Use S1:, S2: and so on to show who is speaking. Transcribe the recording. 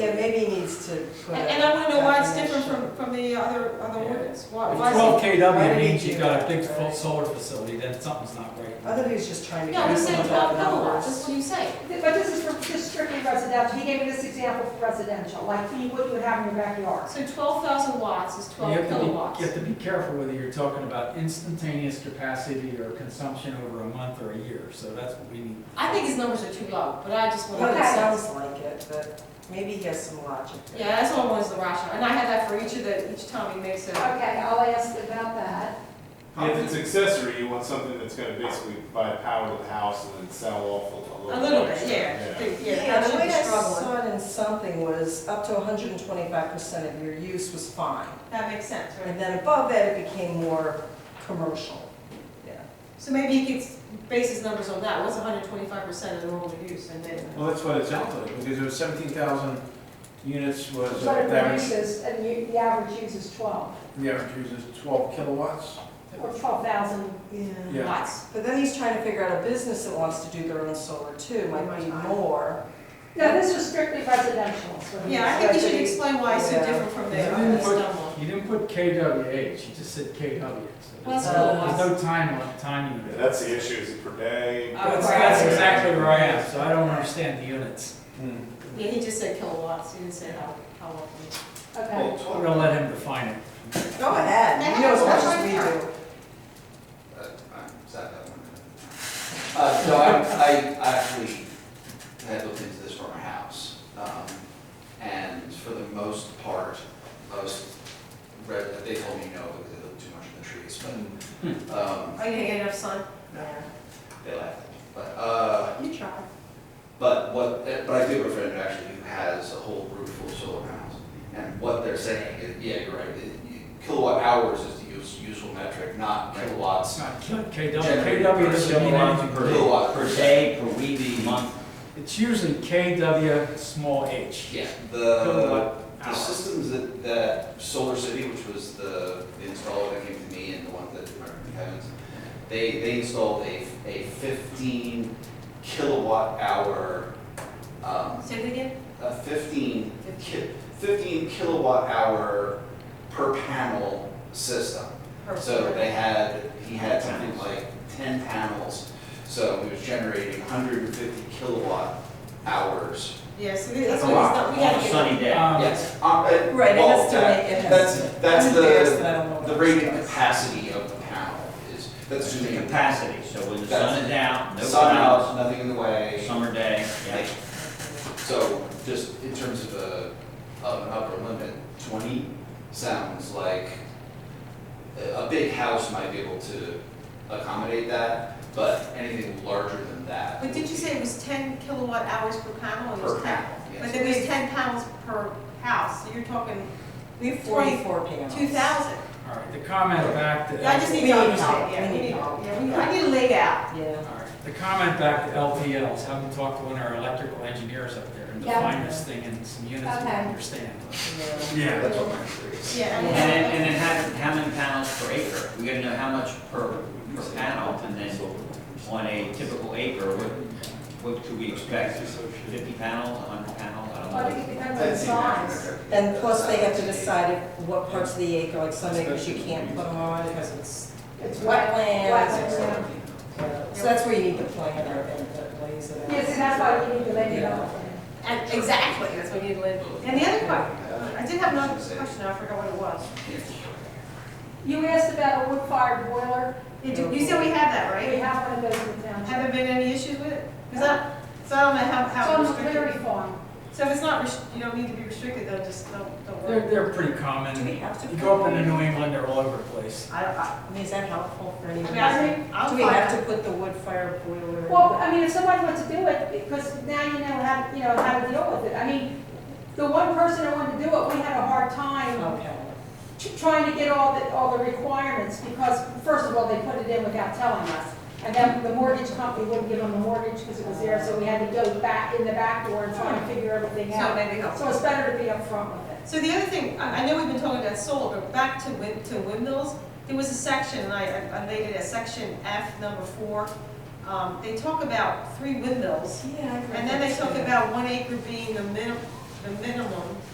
S1: Yeah, maybe he needs to put.
S2: And
S1: a
S2: and I wanna know why it's different
S1: definition.
S2: from, from the other, other
S3: Yeah.
S2: ordinance, why, why is
S3: Twelve
S1: why
S3: KW
S1: did he
S3: means you
S1: do
S3: got a
S1: that,
S3: big full
S1: right?
S3: solar facility, then something's not
S1: I
S3: right.
S1: thought he was just trying
S2: it?
S1: to.
S2: No,
S1: give
S2: we
S1: us
S2: said
S1: some
S2: twelve
S1: numbers.
S2: kilowatts, that's what you say.
S4: But this is for just strictly residential, he gave me this example for residential, like you- what you would have in your backyard.
S2: So twelve thousand watts is
S3: You
S2: twelve
S3: have to be, you have
S2: kilowatts.
S3: to be careful whether you're talking about instantaneous capacity or consumption over a month or a year, so that's what we need.
S2: I think his numbers are too low, but I just
S1: Well,
S2: wanna.
S1: it
S4: Okay.
S1: sounds like it, but maybe he has some logic. there.
S2: Yeah, that's what I want is the rationale, and I have that for each of the, each time he makes a,
S4: Okay, I'll ask about that.
S5: If it's accessory, you want something that's gonna basically provide power to the house and then sell off a
S2: a
S5: little.
S2: little bit,
S5: extra.
S2: yeah. The-
S1: Yeah,
S2: that
S1: the
S2: should
S1: way
S2: be
S1: I
S2: struggling.
S1: saw it in something was up to hundred and twenty-five percent of your use was fine.
S2: That makes sense, right?
S1: And then above that, it became more commercial. Yeah.
S2: So maybe he could base his numbers on that, what's hundred twenty-five percent of the normal use, and then.
S6: Well, that's what it sounds like, because it was seventeen thousand units was uh,
S4: But it
S6: average,
S4: produces, and you, the average use is twelve,
S6: the average use is twelve kilowatts.
S4: or twelve thousand.
S1: Yeah.
S6: Yeah.
S2: Watts.
S1: But then he's trying to figure out a business that wants to do their own solar too, might be more.
S4: No, this was strictly residential, so.
S2: Yeah, I think you should explain why it's so
S1: Yeah.
S2: different from the
S3: Yeah.
S2: other stuff one.
S3: You didn't put KWH, you just said KW. so
S2: Well,
S3: There's
S2: that's
S3: no-
S2: cool.
S3: there's no time on, time
S5: Yeah,
S3: unit.
S5: That's the issue, is it per day?
S2: Uh,
S3: That's, that's exactly where I am, so I don't understand the units.
S7: Hmm.
S2: Yeah, he just said kilowatts, he didn't say how, how often.
S4: Okay,
S6: Well,
S3: We're gonna let him define it.
S1: Go ahead, you know as much as we do.
S7: Uh, so I, I actually had looked into this from our house, um, and for the most part, most, re- they told me no, because they looked too much in the trees, but, um,
S2: Are you gonna get enough sun?
S7: they laughed, but, uh,
S2: You try.
S7: but what, but I do have a friend who actually has a whole roof full of solar panels, and what they're saying is, yeah, you're right, it- kilowatt hours is the use, useful metric, not kilowatts
S3: It's not K- KW,
S8: Generate
S3: KW
S8: per
S3: doesn't mean
S8: kilowatt
S3: anything.
S8: per-
S7: Kilowatt.
S8: Per day, per week, month.
S3: It's usually KW small h.
S7: Yeah, the,
S3: Kilowatt
S7: the
S3: hour.
S7: systems that, that Solar City, which was the, the installer that came to me and the one that American Heavens, they, they installed a, a fifteen kilowatt hour, um,
S2: Say it again?
S7: a fifteen ki- fifteen kilowatt hour per panel system. So they had, he had something like ten panels, so he was generating hundred and fifty kilowatt hours
S2: Yeah, so that's
S7: That's a
S2: what he's
S7: lot.
S2: not, we
S8: On
S2: gotta
S8: a
S2: get.
S8: sunny day.
S3: Um,
S7: Yes. uh, it-
S1: Right, it
S7: well,
S1: has to
S7: that-
S1: make- it has
S7: That's, that's
S1: I'm embarrassed that
S7: the,
S1: I don't know what
S7: the
S1: that
S7: rated
S1: is.
S7: capacity of the panel is, that's
S8: That's the
S7: assuming
S8: capacity, so when the sun is out, no
S7: sun
S8: clouds,
S7: out, nothing in the way.
S8: summer day, yeah.
S7: like, So just in terms of a, of an upper limit, twenty sounds like a, a big house might be able to accommodate that, but anything larger than that.
S2: But did you say it was ten kilowatt hours per panel? It was
S7: Per
S2: 10
S7: panel,
S2: But
S7: yes.
S2: there was ten pounds per house, so you're talking
S1: We have forty-four panels.
S2: two thousand.
S3: All right, the comment back to.
S2: I just need
S1: We
S2: to
S1: need help.
S2: understand, yeah,
S1: We
S2: we
S1: need
S2: need,
S1: help.
S2: yeah, we need, I need to lay out.
S1: Yeah.
S3: All right, the comment back to LPLs, having talked to one of our electrical engineers up there and
S4: Yeah.
S3: define this thing in some units we
S4: Okay.
S3: understand.
S1: yeah.
S7: That's what my theory is.
S2: Yeah. I
S8: And
S2: mean,
S8: then, and then how, how many panels per acre? We gotta know how much per, per panel, and then on a typical acre, what, what could we expect? Fifty panels, hundred panels, I
S4: I
S8: don't
S4: think
S8: know.
S4: it depends on the size.
S1: And plus, they have to decide if- what parts of the acre, like some acres you can't put them on because it's
S4: It's wet.
S1: wetlands.
S4: Wetlands, yeah.
S1: or- So that's where you need the plan or the lays it out.
S4: Yes, and that's why we need to lay it out.
S2: And exactly, that's what you need to lay. And the other part, I did have another question, I forgot what it was.
S4: You asked about a wood-fired boiler,
S2: You do- You said we have that,
S4: we
S2: right?
S4: have one of those in town.
S2: Haven't been any issues with it? Is that, so I don't know how,
S4: It's
S2: how
S4: on the dairy
S2: restricted.
S4: farm.
S2: So if it's not, rest- you don't need to be restricted, though, just don't, don't
S3: They're,
S2: worry.
S3: they're pretty
S1: Do we
S3: common.
S1: have to?
S3: You go up
S1: put-
S3: into New England, they're all over the place.
S1: I don't, I, I mean, is that helpful for
S2: I
S1: anyone?
S2: mean, I think, I'll
S1: Do we have to put the wood fire boiler? in?
S4: Well, I mean, if somebody wants to do it, because now you know how, you know, how to deal with it. I mean, the one person who wanted to do it, we had a hard time
S1: Okay.
S4: t- trying to get all the, all the requirements, because first of all, they put it in without telling us. And then the mortgage company wouldn't give them the mortgage because it was there, so we had to go back in the back door and try and figure everything
S2: So
S4: out.
S2: maybe help.
S4: So it's better to be upfront with it.
S2: So the other thing, I, I know we've been talking about solar, but back to wind, to windmills, there was a section, and I, I laid it as section F, number four. Um, they talk about three windmills,
S1: Yeah. I agree
S2: and then
S1: with
S2: they talk
S1: you.
S2: about one acre being the minim, the minimum